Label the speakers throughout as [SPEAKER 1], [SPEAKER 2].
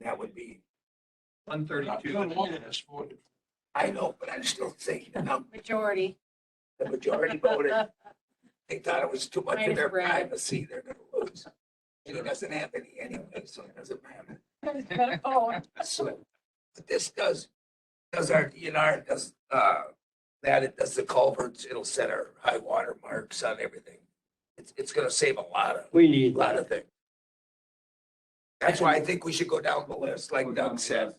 [SPEAKER 1] that would be,
[SPEAKER 2] One thirty-two.
[SPEAKER 3] Not long in this board.
[SPEAKER 1] I know, but I still think, you know,
[SPEAKER 4] majority.
[SPEAKER 1] the majority voted, they thought it was too much of their
[SPEAKER 4] Minus Brad.
[SPEAKER 1] privacy, they're gonna lose. And it doesn't have any anyway, so it doesn't matter.
[SPEAKER 4] Oh,
[SPEAKER 1] So, But this does, does our DNR, does, uh, that, it does the culverts, it'll set our high water marks on everything. It's, it's gonna save a lot of,
[SPEAKER 5] We need
[SPEAKER 1] lot of things. That's why I think we should go down the list, like Doug said,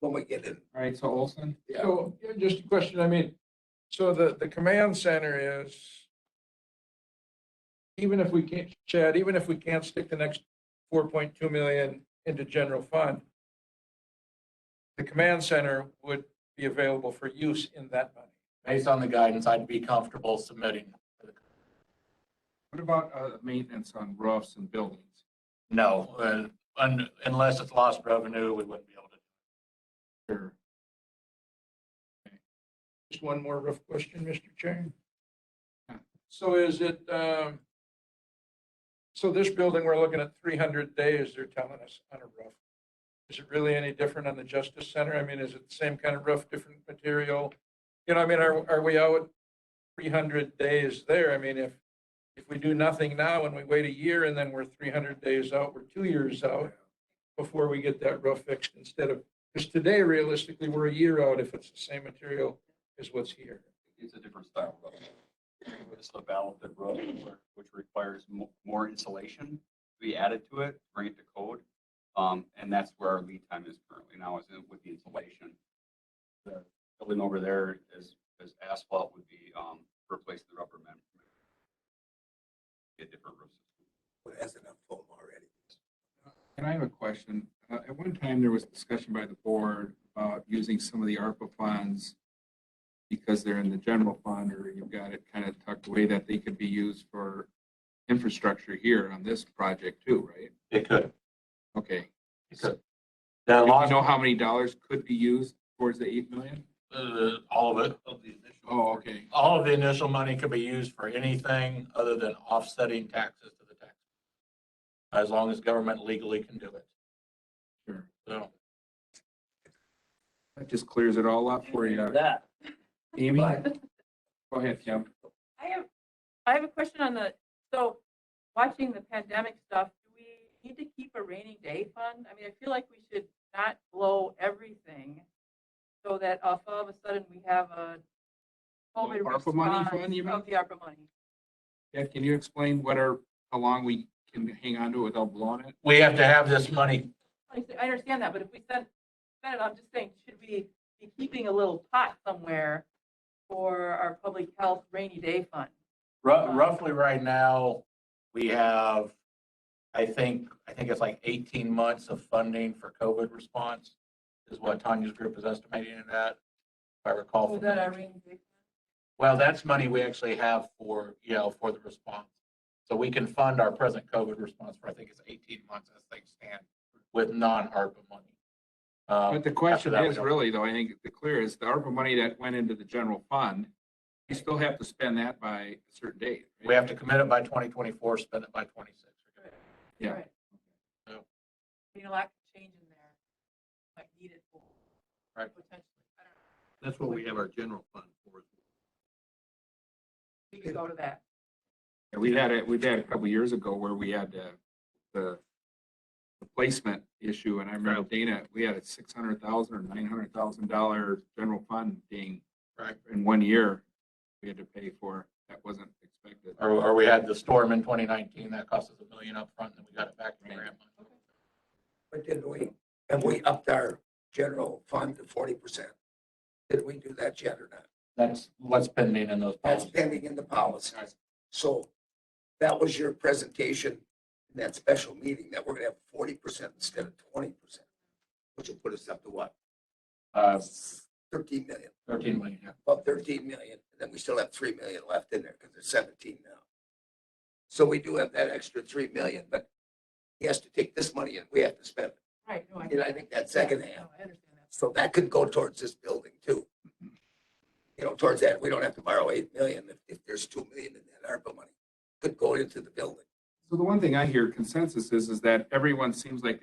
[SPEAKER 1] when we get in.
[SPEAKER 2] All right, so Olson?
[SPEAKER 1] Yeah.
[SPEAKER 3] So, yeah, just a question, I mean, so the, the command center is, even if we can't, Chad, even if we can't stick the next four point two million into general fund, the command center would be available for use in that money.
[SPEAKER 6] Based on the guidance, I'd be comfortable submitting.
[SPEAKER 2] What about, uh, maintenance on roofs and buildings?
[SPEAKER 6] No, uh, un- unless it's lost revenue, we wouldn't be able to.
[SPEAKER 2] Sure.
[SPEAKER 3] Just one more rough question, Mr. Chair.
[SPEAKER 2] Yeah.
[SPEAKER 3] So is it, um, so this building, we're looking at three hundred days, they're telling us on a roof. Is it really any different on the Justice Center? I mean, is it the same kind of roof, different material? You know, I mean, are, are we out three hundred days there? I mean, if, if we do nothing now and we wait a year and then we're three hundred days out, we're two years out before we get that roof fixed instead of, because today realistically, we're a year out if it's the same material is what's here.
[SPEAKER 7] It's a different style roof. It's a valve roof, which requires mo- more insulation to be added to it, bring it to code. Um, and that's where our lead time is currently now is in- with the insulation. The Building over there is, is asphalt would be, um, replaced with rubber membrane. Get different roofs.
[SPEAKER 1] It has enough foam already.
[SPEAKER 2] And I have a question. Uh, at one time, there was discussion by the board about using some of the ARPA funds because they're in the general fund or you've got it kind of tucked away that they could be used for infrastructure here on this project too, right?
[SPEAKER 6] It could,
[SPEAKER 2] Okay.
[SPEAKER 6] it could. That
[SPEAKER 2] Do you
[SPEAKER 6] lost,
[SPEAKER 2] know how many dollars could be used towards the eight million?
[SPEAKER 6] uh, all of it.
[SPEAKER 2] Oh, okay.
[SPEAKER 6] All of the initial money could be used for anything other than offsetting taxes to the tax. As long as government legally can do it.
[SPEAKER 2] Sure.
[SPEAKER 6] So,
[SPEAKER 2] That just clears it all up for you.
[SPEAKER 5] that.
[SPEAKER 2] Amy? Go ahead, Kim.
[SPEAKER 4] I have, I have a question on the, so watching the pandemic stuff, do we need to keep a rainy day fund? I mean, I feel like we should not blow everything so that all of a sudden we have a COVID
[SPEAKER 2] ARPA money
[SPEAKER 4] response
[SPEAKER 2] fund, you mean?
[SPEAKER 4] of the ARPA money.
[SPEAKER 2] Yeah, can you explain what our, how long we can hang on to it without blowing it?
[SPEAKER 6] we have to have this money
[SPEAKER 4] I s- I understand that, but if we spend, spend it, I'm just saying, should we be keeping a little pot somewhere for our public health rainy day fund?
[SPEAKER 6] Ru- Roughly right now, we have, I think, I think it's like 18 months of funding for COVID response is what Tanya's group is estimating it at, if I recall.
[SPEAKER 4] Is that our
[SPEAKER 6] from-
[SPEAKER 4] rainy day?
[SPEAKER 6] Well, that's money we actually have for, you know, for the response. So we can fund our present COVID response for, I think it's 18 months as things stand with non-ARPA money. Um,
[SPEAKER 2] But the
[SPEAKER 6] after
[SPEAKER 2] question
[SPEAKER 6] that, we
[SPEAKER 2] is
[SPEAKER 6] don't-
[SPEAKER 2] really though, I think the clear is the ARPA money that went into the general fund, you still have to spend that by a certain date. right?
[SPEAKER 6] We have to commit it by 2024, spend it by 26.
[SPEAKER 2] Yeah.
[SPEAKER 4] Right.
[SPEAKER 6] Yeah.
[SPEAKER 4] You know, lack of change in there, might need it for.
[SPEAKER 6] Right.
[SPEAKER 4] Potentially, I don't know,
[SPEAKER 7] That's what we have our general fund for.
[SPEAKER 4] we could go to that.
[SPEAKER 2] And we had it, we've had a couple years ago where we had uh, the the placement issue and I remember Dana, we had a 600,000 or 900,000 dollar general fund being
[SPEAKER 6] Right.
[SPEAKER 2] in one year we had to pay for. That wasn't expected.
[SPEAKER 6] Or, or we had the storm in 2019, that cost us a million upfront, and then we got it back in grant money.
[SPEAKER 1] But didn't we, and we upped our general fund to forty percent? Did we do that yet or not?
[SPEAKER 6] That's what's pending in those
[SPEAKER 1] That's
[SPEAKER 6] policies.
[SPEAKER 1] pending in the policy. So that was your presentation in that special meeting, that we're gonna have forty percent instead of twenty percent, which will put us up to what?
[SPEAKER 6] Uh,
[SPEAKER 1] Thirteen million,
[SPEAKER 6] 13 million, yeah.
[SPEAKER 1] about thirteen million, and then we still have three million left in there, because there's seventeen now. So we do have that extra three million, but he has to take this money and we have to spend it.
[SPEAKER 4] Right. no,
[SPEAKER 1] And I think that second
[SPEAKER 4] yeah,
[SPEAKER 1] half
[SPEAKER 4] no, I understand that.
[SPEAKER 1] So that could go towards this building too. You know, towards that, we don't have to borrow eight million if, if there's two million in that ARPA money, could go into the building.
[SPEAKER 2] So the one thing I hear consensus is, is that everyone seems like they